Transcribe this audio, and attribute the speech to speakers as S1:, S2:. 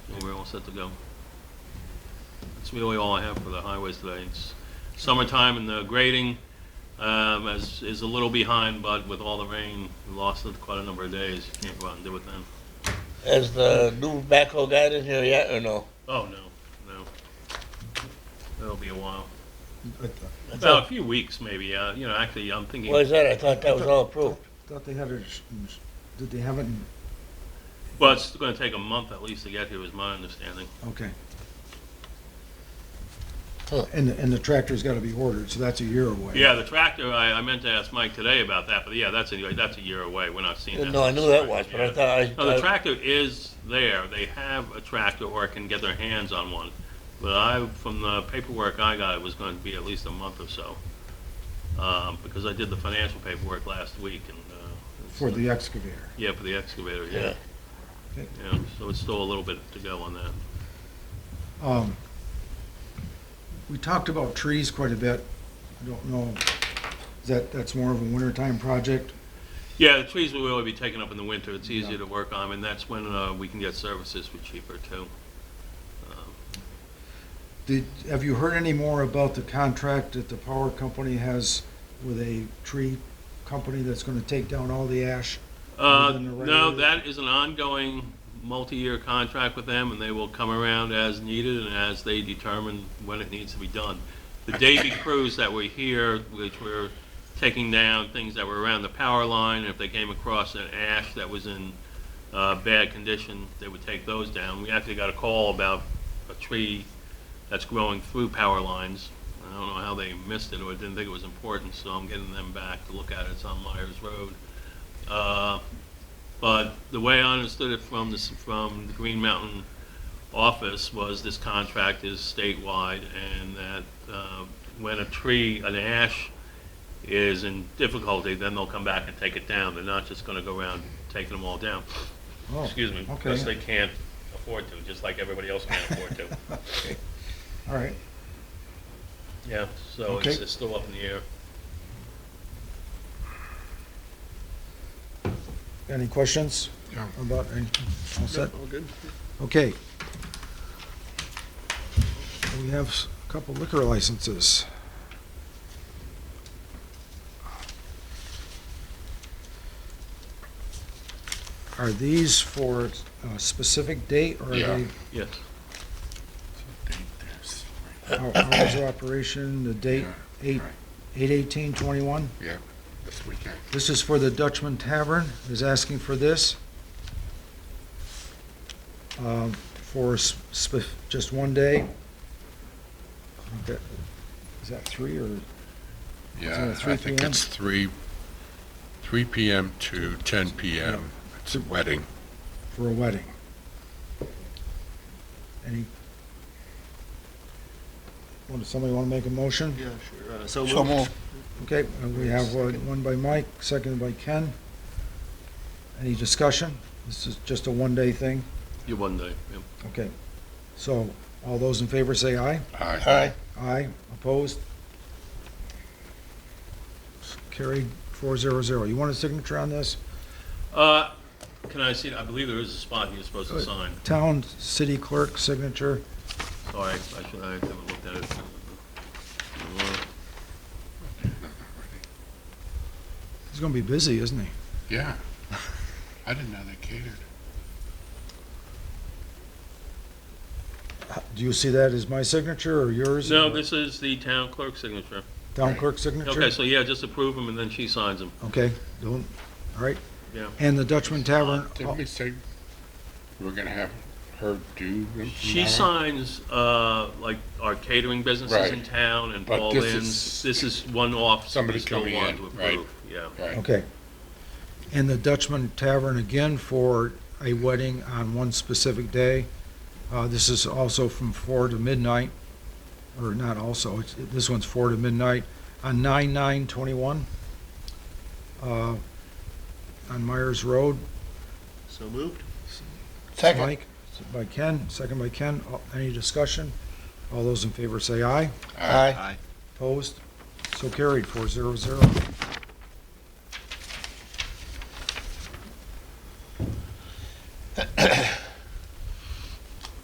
S1: all set to go. That's really all I have for the highways today. It's summertime and the grading um, is, is a little behind, but with all the rain, we lost it quite a number of days. You Can't go out and do it then.
S2: Has the new backhoe guy in here yet or no?
S1: Oh, no, no. That'll be a while.
S3: I thought-
S1: About a few weeks, maybe, yeah. You know, actually, I'm thinking.
S2: Why is that? I thought that was all approved.
S3: Thought they had it, s- s- did they have it? in-
S1: Well, it's going to take a month at least to get here, is my understanding.
S3: Okay.
S2: Huh.
S3: And, the- and the tractor's gotta be ordered, so that's a year away.
S1: Yeah, the tractor, I, I meant to ask Mike today about that, but yeah, that's a, that's a year away. We're not seeing that.
S2: Uh, No, I knew that was, but I
S1: Yeah.
S2: thought I.
S1: No, the
S2: I-
S1: tractor is there. They have a tractor or can get their hands on one. But I, from the paperwork I got, it was going to be at least a month or so. Um, because I did the financial paperwork last week and, uh. it's-
S3: For the excavator.
S1: Yeah, for the excavator, yeah.
S2: Yeah.
S1: Yeah, so it's still a little bit to go on that.
S3: Um, we talked about trees quite a bit. I don't know, is that, that's more of a wintertime project?
S1: Yeah, the trees will really be taken up in the winter. It's easier to work on and that's when, uh, we can get services for cheaper too.
S3: Did, have you heard any more about the contract that the power company has with a tree company that's gonna take down all the ash?
S1: Uh,
S3: Within the
S1: no,
S3: regular-
S1: that is an ongoing, multi-year contract with them, and they will come around as needed and as they determine when it needs to be done. The Davy crews that were here, which were taking down things that were around the power line, if they came across an ash that was in, uh, bad condition, they would take those down. We actually got a call about a tree that's growing through power lines. I don't know how they missed it or didn't think it was important, so I'm getting them back to look at it. It's on Myers Road. Uh, But the way I understood it from this, from the Green Mountain office was this contract is statewide and that uh, when a tree, an ash is in difficulty, then they'll come back and take it down. They're not just gonna go around taking them all down.
S3: Oh,
S1: Excuse me, because they
S3: Okay,
S1: can't afford to, just like everybody else can't afford to.
S3: all right.
S1: Yeah, so it's,
S3: Okay.
S1: it's still up in the air.
S3: Any questions?
S4: No.
S3: About, any- all set? All good. Okay. We have s- a couple liquor licenses. Are these for a specific date or are
S4: Yeah.
S3: they
S1: Yes.
S3: hou- hours of operation, the date, eight, eight eighteen twenty-one?
S4: This weekend.
S3: This is for the Dutchman Tavern, is asking for this. Um, For s- sp- just one day. That- Is that three or,
S4: Yeah,
S3: Is it
S4: I
S3: 3
S4: think
S3: p.m.?
S4: it's three, three PM to ten PM. It's a wedding.
S3: for a wedding? Any? Want, somebody want to make a motion?
S5: Yeah, sure. Uh, So moved.
S3: Okay, uh, we have uh, one by Mike, seconded by Ken. Any discussion? This is just a one-day thing?
S1: You one day, yeah.
S3: Okay. So, all those in favor say aye?
S2: Uh,
S4: Aye.
S3: Aye, opposed? Carried, four zero zero. You want a signature on this?
S1: Uh, Can I see, I believe there is a spot you're supposed to
S3: Good.
S1: sign.
S3: Town city clerk signature.
S1: Sorry, I should, I haven't looked at it.
S3: He's gonna be busy, isn't he?
S4: Yeah. I didn't know they catered.
S3: Do you see that as my signature or yours?
S1: No, this is the town clerk's signature.
S3: Town clerk signature?
S1: Okay, so yeah, just approve them and then she signs them.
S3: Okay, don't, all right.
S1: Yeah.
S3: And the Dutchman Tavern,
S4: Didn't we say we were gonna have her do them?
S1: She
S4: tomorrow?
S1: signs, uh, like our catering businesses
S4: Right.
S1: in town and
S4: But
S1: Paul
S4: this
S1: Lynn's.
S4: is-
S1: This is one off.
S4: Somebody
S1: we still
S4: coming
S1: want
S4: in,
S1: to
S4: right.
S1: approve, Yeah.
S3: oh,
S4: Right,
S3: okay. And the Dutchman Tavern again for a wedding on one specific day. Uh, this is also from four to midnight, or not also, it's, this one's four to midnight on nine nine twenty-one. Uh, on Myers Road,
S5: So moved.
S4: second.
S3: Mike, by Ken, second by Ken, All- any discussion? All those in favor say aye.
S4: Aye.
S3: Opposed? So carried, four zero zero.